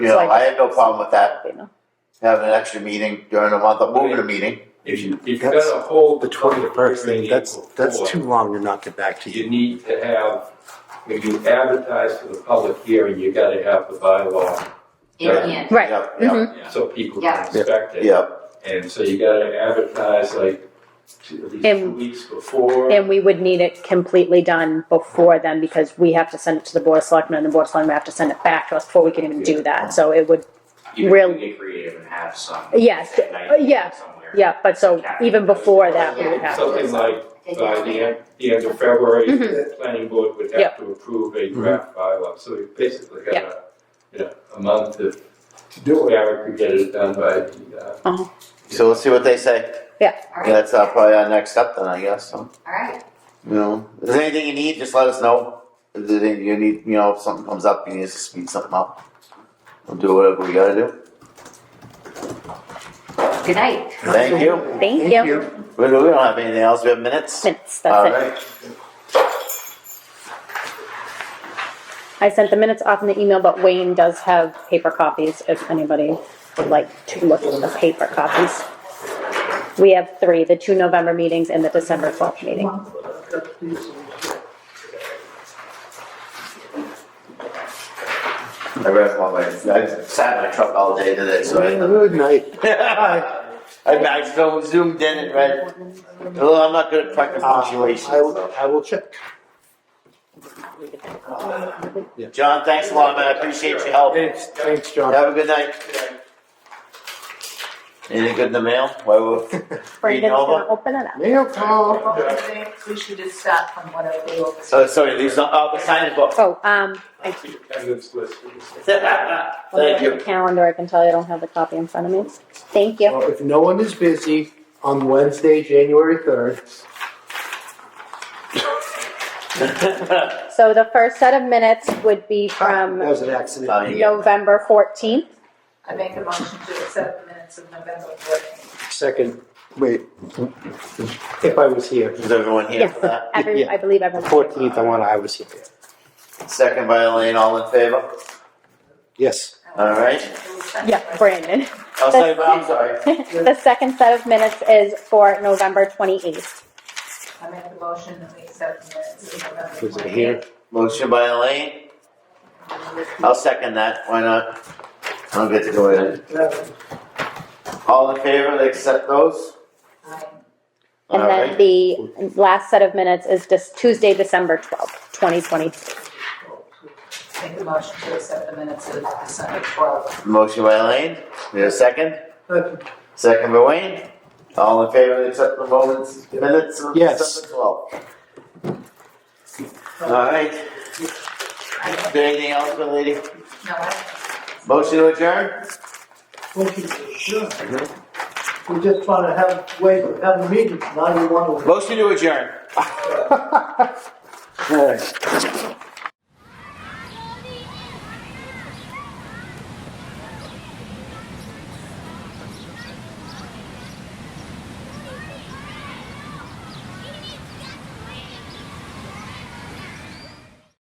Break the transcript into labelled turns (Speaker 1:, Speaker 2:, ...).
Speaker 1: You know,
Speaker 2: So I
Speaker 1: I have no problem with that,
Speaker 2: you know.
Speaker 1: having an extra meeting during the month, of moving a meeting.
Speaker 3: If you, if you're
Speaker 4: That's
Speaker 3: gonna hold.
Speaker 4: The twenty-first,
Speaker 3: meeting
Speaker 4: that's, that's
Speaker 3: before,
Speaker 4: too long to not get back to
Speaker 3: You
Speaker 4: you.
Speaker 3: need to have, when you advertise for the public hearing, you gotta have the bylaw,
Speaker 5: in hand.
Speaker 2: Right. Mm-hmm.
Speaker 1: Yep, yep,
Speaker 3: so people
Speaker 5: Yeah.
Speaker 3: can inspect it.
Speaker 1: yep,
Speaker 3: And so you gotta advertise like two, at least two
Speaker 2: And-
Speaker 3: weeks before.
Speaker 2: And we would need it completely done before then because we have to send it to the board of selectmen and the board of selectmen have to send it back to us before we can even do that. So it would,
Speaker 6: You can
Speaker 2: Really-
Speaker 6: be creative and have some.
Speaker 2: Yes, Oh,
Speaker 6: an idea
Speaker 2: uh, yeah,
Speaker 6: somewhere.
Speaker 2: yeah, but so even before that, we would have to.
Speaker 3: Something like
Speaker 5: They
Speaker 3: by
Speaker 5: don't-
Speaker 3: the end, the end of February,
Speaker 2: Mhm.
Speaker 3: the planning board would have
Speaker 2: Yep.
Speaker 3: to approve a
Speaker 4: Mm-hmm.
Speaker 3: draft bylaw, so we basically got a, you know, a month to do it. Eric could get it done by the, uh,
Speaker 1: so we'll see what they say,
Speaker 5: All right,
Speaker 1: that's uh, probably our next step then, I guess, so,
Speaker 5: all right,
Speaker 1: you know, if there's anything you need, just let us know. If there's anything you need, you know, if something comes up, you need us to speed something up, we'll do whatever we gotta do,
Speaker 5: good night.
Speaker 1: thank you.
Speaker 2: Thank you.
Speaker 1: We don't we don't have anything else, we have minutes?
Speaker 2: Minutes,
Speaker 1: All
Speaker 2: that's it.
Speaker 1: right.
Speaker 2: I sent the minutes off in the email, but Wayne does have paper copies if anybody would like to look at the paper copies. We have three, the two November meetings and the December twelfth meeting.
Speaker 1: I read all my, I sat in my truck all day today, so I.
Speaker 4: Good night.
Speaker 1: I, I so zoomed in and read, although I'm not good at tracking
Speaker 4: Uh,
Speaker 1: punctuation,
Speaker 4: I will,
Speaker 1: so.
Speaker 4: I will check.
Speaker 1: John, thanks a lot, man, I appreciate your help.
Speaker 4: Thanks, thanks, John.
Speaker 1: Have a good night. Anything good in the mail? Why we're
Speaker 2: Brandon's gonna
Speaker 1: over?
Speaker 2: open it up.
Speaker 4: Mail call.
Speaker 7: We should just start from whatever we all
Speaker 1: Oh, sorry, these are, oh, the signing book.
Speaker 2: Oh, um, I
Speaker 3: attendance list.
Speaker 1: Thank
Speaker 2: Look at
Speaker 1: you.
Speaker 2: the Calendar, I can tell you I don't have the copy in front of me. Thank you.
Speaker 4: Well, If no one is busy on Wednesday, January third,
Speaker 2: So the first set of minutes would be
Speaker 4: that
Speaker 2: from
Speaker 4: was an accident.
Speaker 1: Signing it.
Speaker 2: November fourteenth.
Speaker 7: I make a motion to accept the minutes of November fourteenth.
Speaker 4: Second, wait, if I was here,
Speaker 1: Is everyone here for that?
Speaker 2: Every,
Speaker 4: Yeah.
Speaker 2: I believe everyone.
Speaker 4: fourteenth, I want, I was here.
Speaker 1: Second by Elaine, all in favor?
Speaker 4: Yes.
Speaker 1: All right.
Speaker 2: Yeah, Brandon.
Speaker 1: I'll say, I'm sorry.
Speaker 2: The second set of minutes is for November twenty-eighth.
Speaker 7: I make a motion that we accept the minutes of November
Speaker 4: Was it
Speaker 7: fourteenth.
Speaker 4: here?
Speaker 1: Motion by Elaine. I'll second that. Why not? I don't get to go in. All in favor, they accept those?
Speaker 7: oh,
Speaker 2: And
Speaker 1: All
Speaker 2: then
Speaker 1: right.
Speaker 2: the last set of minutes is just Tuesday, December twelfth, twenty twenty.
Speaker 7: I make a motion to accept the minutes of December twelfth.
Speaker 1: Motion by Elaine. Need a second?
Speaker 7: Second.
Speaker 1: Second by Wayne. All in favor, they accept the moments, minutes of
Speaker 4: Yes.
Speaker 1: December twelfth?
Speaker 4: Uh,
Speaker 1: All right. Is there anything else, my lady?
Speaker 7: No, I,
Speaker 1: Motion to adjourn?
Speaker 8: Okay, sure. We just want to have, wait, have a meeting, now you want to.
Speaker 1: Motion to adjourn.
Speaker 4: All right.